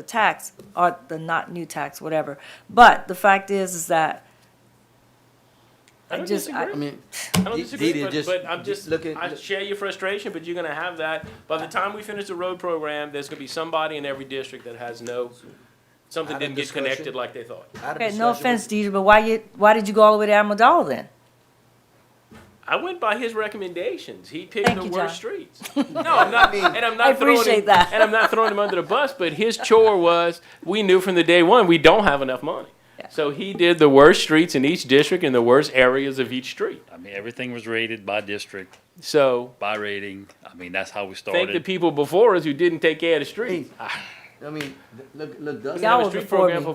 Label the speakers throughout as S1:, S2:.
S1: the tax, or the not new tax, whatever. But the fact is, is that
S2: I
S1: I
S2: don't
S1: just-
S2: disagree.
S1: I-
S2: I,
S1: I
S3: mean,
S2: don't
S3: D-
S2: disagree,
S3: Dita,
S2: but,
S3: just-
S2: but I'm
S3: d-
S2: just,
S3: look at-
S2: I share your frustration, but you're gonna have that. By the time we finish the road program, there's gonna be somebody in every district that has no, something
S3: Had a
S2: didn't get
S3: discussion.
S2: connected like they thought.
S3: I had a
S1: Okay, no
S3: discussion
S1: offense,
S3: with-
S1: Deidre, but why you, why did you go all the way to Almadal then?
S2: I went by his recommendations. He picked
S1: Thank
S2: the
S1: you,
S2: worst
S1: John.
S2: streets. No, I'm not, and I'm not
S1: I
S2: throwing him,
S1: appreciate that.
S2: and I'm not throwing him under the bus. But his chore was, we knew from the day one, we don't have enough money.
S1: Yeah.
S2: So he did the worst streets in each district and the worst areas of each street.
S4: I mean, everything was rated by district,
S2: So
S4: by rating. I mean, that's how we
S2: thank the
S4: started.
S2: people before us who didn't take care of the streets.
S3: Ah, I mean, th- look, look, Dustin.
S1: Y'all
S2: I
S1: was
S2: was street
S1: before
S2: program
S1: me.
S2: for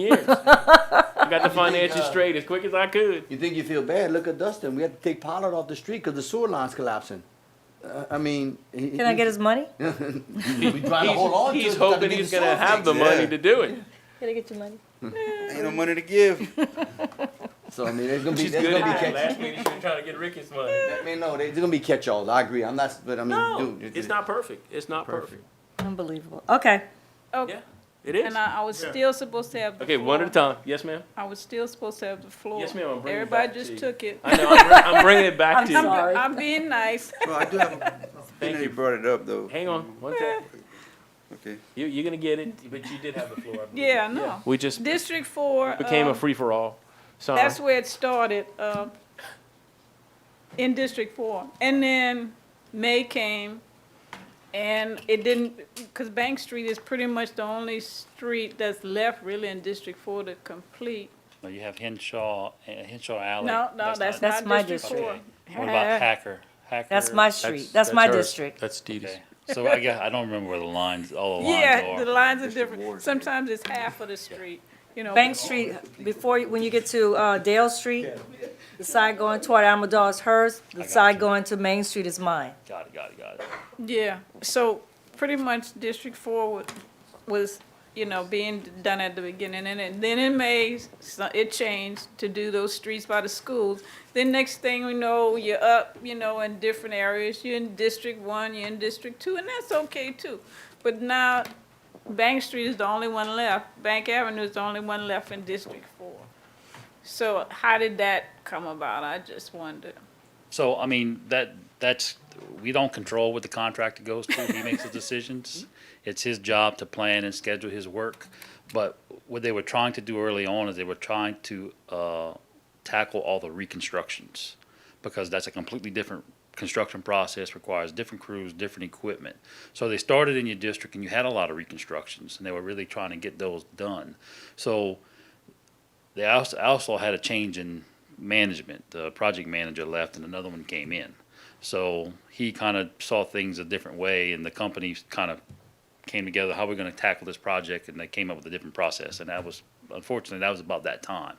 S2: years. I got the finances straight as quick as I could.
S3: You think you feel bad? Look at Dustin. We had to take Pollard off the street because the sewer line's collapsing. Uh, I mean, he,
S1: Can I get his money?
S3: we trying to hold on to
S2: He's
S3: it 'cause
S2: hoping
S3: we
S2: he's
S3: need
S2: going to
S3: sewer
S2: have the
S3: fixed.
S2: money to do it.
S5: Can I get your money?
S6: Ain't no money to give.
S3: So I mean, there's gonna be
S2: She's
S3: there's
S2: good
S3: gonna be
S2: at it.
S3: catch.
S2: Last meeting, she was trying to get Ricky's money.
S3: I mean, no, there's gonna be catch-alls. I agree. I'm not, but I mean,
S2: No,
S3: dude, it-
S2: it's not perfect. It's not perfect.
S1: Unbelievable. Okay,
S2: Yeah,
S5: Okay,
S2: it is.
S5: Oh, and I, I was still supposed to have the
S2: Okay, one at a
S5: floor.
S2: time. Yes, ma'am.
S5: I was still supposed to have the floor.
S2: Yes, ma'am, I'm bringing it
S5: Everybody
S2: back to
S5: just
S2: you.
S5: took it.
S2: I know, I'm, bring- I'm bringing it back
S1: I'm
S2: to
S5: I'm,
S2: you.
S1: sorry.
S5: I'm being nice.
S6: Well, I do have a.
S2: Thank
S6: Thank
S2: you.
S6: you brought it up though.
S2: Hang on, one sec.
S6: Okay.
S2: You, you're going to get it, but you did have the floor. I believe.
S5: Yeah, I know.
S2: We just
S5: District four.
S2: became
S5: uh,
S2: a free-for-all. Sorry.
S5: That's where it started, uh, in District Four. And then May came, and it didn't, because Bank Street is pretty much the only street that's left really in District Four to complete.
S4: Now, You have Henshaw, eh, Henshaw Alley.
S5: No, no, that's
S1: That's my
S5: not District
S1: district.
S5: Four.
S4: What about Hacker? Hacker?
S1: that's my street, that's my district.
S2: That's Dee
S4: Okay. So I guess, I don't remember where the lines, all the
S5: Yeah,
S4: lines
S5: the
S4: are.
S5: lines are
S6: District
S5: different.
S6: Ward.
S5: Sometimes it's half of the street, you know.
S1: Bank Street, before, you- when you get to, uh, Dale Street, the side going toward Almadal is hers, the
S4: got
S1: side
S4: you.
S1: going to Main Street is mine.
S4: Got it, got it, got it.
S5: Yeah, so pretty much District Four was, was, you know, being done at the beginning, and then- then in May, so- it changed to do those streets by the schools. Then next thing we know, you're up, you know, in different areas, you're in District One, you're in District Two, and that's okay too. But now, Bank Street is the only one left, Bank Avenue is the only one left in District Four. So how did that come about, I just wonder.
S4: So, I mean, that, that's, we don't control what the contractor goes to. He makes the decisions. It's his job to plan and schedule his work. But what they were trying to do early on is they were trying to, uh, tackle all the reconstructions. Because that's a completely different construction process, requires different crews, different equipment. So they started in your district and you had a lot of reconstructions and they were really trying to get those done. So, they also, also had a change in management. The project manager left and another one came in. So he kind of saw things a different way and the company kind of came together, how we're going to tackle this project, and they came up with a different process. And that was, unfortunately, that was about that time.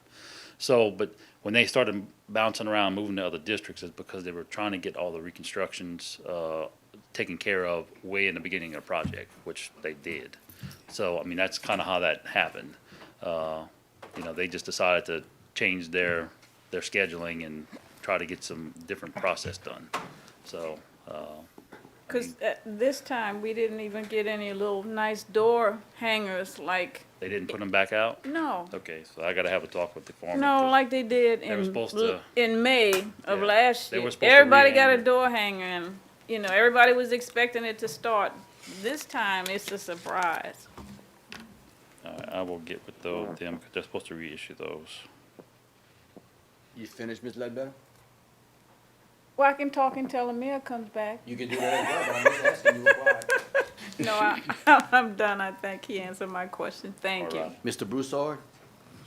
S4: So, but when they started bouncing around, moving to other districts, it's because they were trying to get all the reconstructions uh, taken care of way in the beginning of the project, which they did. So, I mean, that's kind of how that happened. Uh, you know, they just decided to change their their scheduling and try to get some different process done. So, uh,
S5: Because this time, we didn't even get any little nice door hangers like,
S4: they didn't put them back out.
S5: no.
S4: Okay, so I gotta have a talk with the farmer.
S5: No,
S4: 'cause-
S5: like they did
S4: were
S5: in,
S4: supposed to-
S5: in May of
S4: Yeah,
S5: last
S4: they were
S5: year.
S4: supposed to
S5: Everybody got a
S4: rehang it.
S5: door hanger and, you know, everybody was expecting it to start. This time, it's a surprise.
S4: All right, I will get with tho- them, because they're supposed to reissue those.
S3: you finished, Miss Ledbetter.
S5: Well, I can talk until Amir comes back.
S3: You can do that as well. But I'm just asking you why.
S5: No, I, I'm done. I think he answered my question. Thank
S4: All
S5: you.
S4: right.
S3: Mr. Broussard,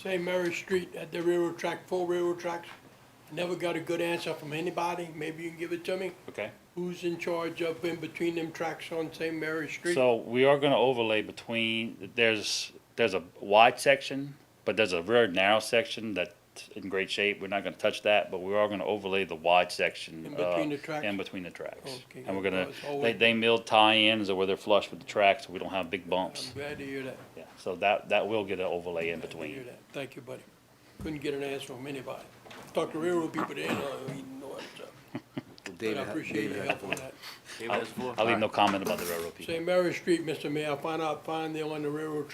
S7: St. Mary Street at the railroad track, four railroad tracks. Never got a good answer from anybody. Maybe you can give it to me.
S4: Okay.
S7: Who's in charge up in between them tracks on St. Mary Street?
S4: So we are gonna overlay between, there's, there's a wide section, but there's a very narrow section that's in great shape. We're not gonna touch that, but we are gonna overlay the wide section.
S7: In between
S4: uh,
S7: the tracks?
S4: In between the tracks.
S7: Okay,
S4: And we're
S7: good.
S4: gonna,
S7: No, it's
S4: they,
S7: always-
S4: they milled tie-ins or where they're flush with the tracks, so we don't have big bumps.
S7: I'm glad to hear that.
S4: Yeah, so that, that will get an overlay in
S7: Glad to hear
S4: between.
S7: that. Thank you, buddy. Couldn't get an answer from anybody. Talked to railroad people, they ain't know, they ain't know what's up. but I
S3: David,
S7: appreciate your help on that.
S2: David has the floor.
S4: I'll leave no comment about the railroad people.
S7: St. Mary Street, Mr. Mayor, I found out, find them on the railroad